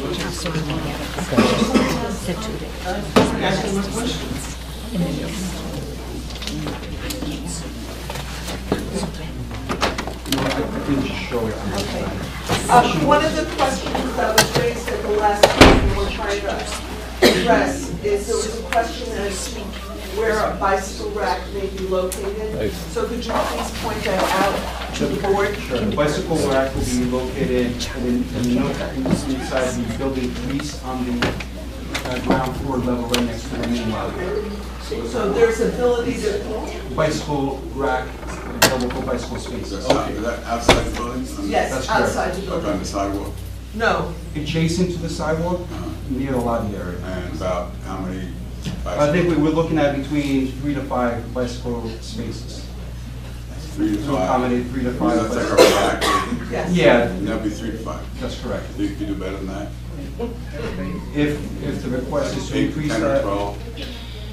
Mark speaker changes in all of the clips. Speaker 1: so we can get it situated. In the middle.
Speaker 2: Um, One of the questions that was raised at the last meeting we're trying to address is there was a question as to where a bicycle rack may be located. So could you please point that out to the board?
Speaker 3: Sure. The bicycle rack will be located in the- in the north inside the building, at least on the uh, ground floor level right next to the main lobby.
Speaker 2: So there's ability to,
Speaker 3: Bicycle rack, available for bicycle spaces.
Speaker 4: Is that outside the building?
Speaker 2: yes,
Speaker 3: That's correct.
Speaker 2: outside the
Speaker 4: Up on
Speaker 2: building.
Speaker 4: the sidewalk,
Speaker 2: No,
Speaker 3: Adjacent to the sidewalk, near the lobby area.
Speaker 4: and about how many?
Speaker 3: I think we were looking at between three to five bicycle spaces.
Speaker 4: Three to
Speaker 3: To
Speaker 4: five.
Speaker 3: accommodate three to
Speaker 4: So
Speaker 3: five.
Speaker 4: That's like a
Speaker 3: bicycle-
Speaker 4: rack.
Speaker 2: yes.
Speaker 3: Yeah,
Speaker 4: That'd be three to five.
Speaker 3: that's correct.
Speaker 4: You could do better than that.
Speaker 3: If, if the request is to
Speaker 4: Eight,
Speaker 3: increase
Speaker 4: Ten or
Speaker 3: that.
Speaker 4: twelve.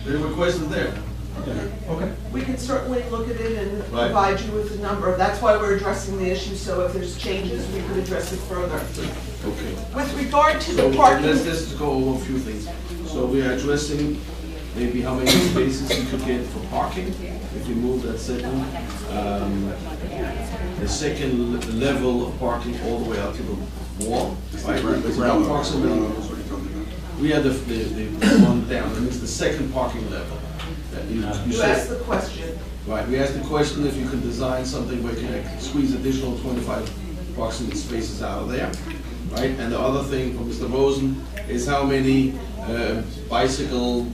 Speaker 5: The request is there.
Speaker 4: Okay.
Speaker 3: Okay.
Speaker 2: We can certainly look at it and
Speaker 5: Right.
Speaker 2: provide you with a number. That's why we're addressing the issue, so if there's changes, we could address it further.
Speaker 5: Okay.
Speaker 2: With regard to
Speaker 5: So
Speaker 2: the parking.
Speaker 5: let's just go over a few things. So we are addressing maybe how many spaces you could get for parking if you move that second. um, The second le- level of parking all the way out to the wall.
Speaker 4: It's
Speaker 5: right?
Speaker 4: the ground- the
Speaker 5: It's
Speaker 4: ground level.
Speaker 5: approximately-
Speaker 4: That's what you're talking about.
Speaker 5: We are the, the, the one down, and it's the second parking level. that you- you
Speaker 2: You
Speaker 5: said.
Speaker 2: asked the question.
Speaker 5: Right, we asked the question if you could design something where you can squeeze additional twenty-five approximate spaces out of there, right? And the other thing from Mr. Rosen is how many uh, bicycle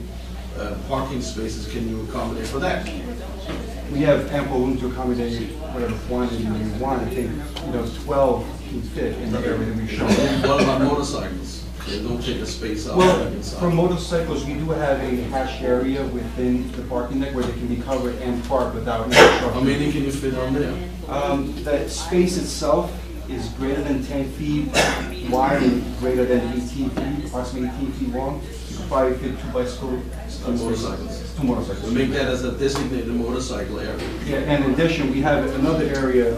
Speaker 5: uh, parking spaces can you accommodate for that?
Speaker 3: We have ample room to accommodate whatever quantity we want. I think, you know, 12 can fit in the area that we've shown.
Speaker 5: What about motorcycles? They don't take a space out of
Speaker 3: Well,
Speaker 5: that
Speaker 3: for
Speaker 5: inside.
Speaker 3: motorcycles, we do have a hash area within the parking deck where they can be covered and parked without any
Speaker 5: How
Speaker 3: trouble.
Speaker 5: many can you fit on there?
Speaker 3: Um, That space itself is greater than 10 feet wide and greater than 18 feet, approximately 18 feet long. You could probably fit two bicycle
Speaker 5: Two
Speaker 3: spaces.
Speaker 5: motorcycles.
Speaker 3: Two
Speaker 5: We
Speaker 3: motorcycles.
Speaker 5: make that as a designated motorcycle area.
Speaker 3: Yeah, and in addition, we have another area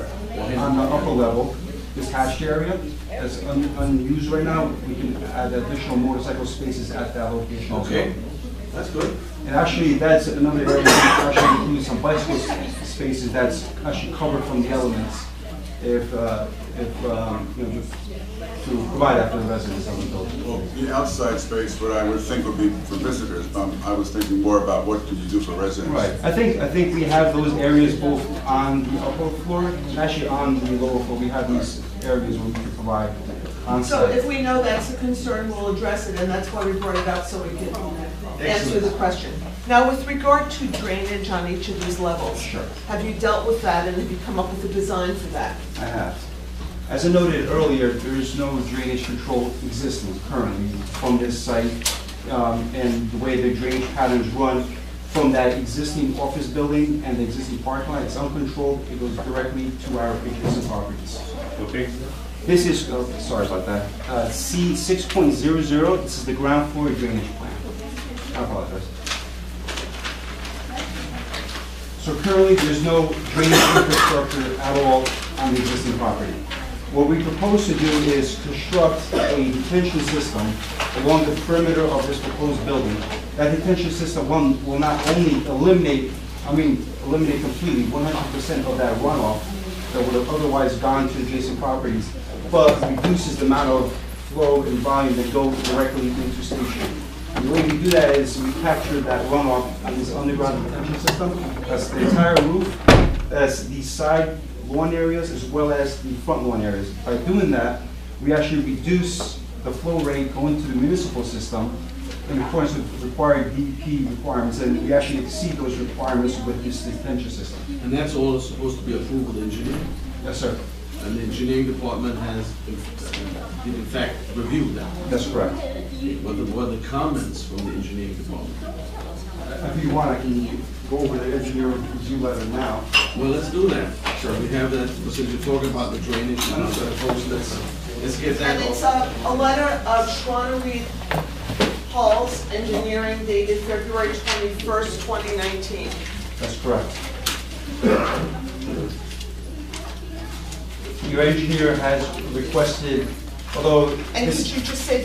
Speaker 3: on the upper level, this hatched area, that's un- unused right now. We can add additional motorcycle spaces at that location as well.
Speaker 5: Okay, that's good.
Speaker 3: And actually, that's another area that actually includes some bicycle s- spaces that's actually covered from the elements if, uh, if, um, you know, to- to provide that for the residents of the building.
Speaker 4: Well, the outside space, what I would think would be for visitors, but I was thinking more about what could you do for residents?
Speaker 3: Right, I think, I think we have those areas both on the upper floor and actually on the lower floor. We have these areas where we can provide
Speaker 2: So if
Speaker 3: onsite.
Speaker 2: we know that's a concern, we'll address it, and that's why we brought it up, so we can answer the
Speaker 5: Excellent.
Speaker 2: question. Now, with regard to drainage on each of these levels.
Speaker 3: Sure.
Speaker 2: Have you dealt with that, and have you come up with a design for that?
Speaker 3: I have. As I noted earlier, there is no drainage control existing currently from this site, um, and the way the drainage patterns run from that existing office building and the existing parking lot, it's uncontrolled, it goes directly to our adjacent properties.
Speaker 6: Okay,
Speaker 3: This is, oh, sorry about that, Uh, C 6.00, this is the ground floor drainage plan. I apologize. So currently, there's no drainage infrastructure at all on the existing property. What we propose to do is construct a detention system along the perimeter of this proposed building. That detention system will will not only eliminate, I mean, eliminate completely 100% of that runoff that would have otherwise gone to adjacent properties, but reduces the amount of flow and volume that go directly into Station. The way we do that is we capture that runoff in this underground detention system. That's the entire roof, that's the side lawn areas as well as the front lawn areas. By doing that, we actually reduce the flow rate going to the municipal system in accordance with required DEP requirements, and we actually exceed those requirements with this detention system.
Speaker 5: And that's all supposed to be approved with engineering.
Speaker 3: Yes, sir.
Speaker 5: And the engineering department has, uh, did in fact, reviewed that.
Speaker 3: That's correct.
Speaker 5: What the, what the comments from the engineering department?
Speaker 3: If you want, I can go over the engineering review letter now.
Speaker 5: Well, let's do that. Sure. We have that, because you're talking about the drainage, and I'm gonna post this. Let's get
Speaker 2: And
Speaker 5: that
Speaker 2: it's
Speaker 5: off.
Speaker 2: a, a letter of Schwann Reed Hall's Engineering dated February twenty-first, twenty nineteen.
Speaker 3: That's correct. Your engineer has requested, although
Speaker 2: And could
Speaker 3: this
Speaker 2: you just say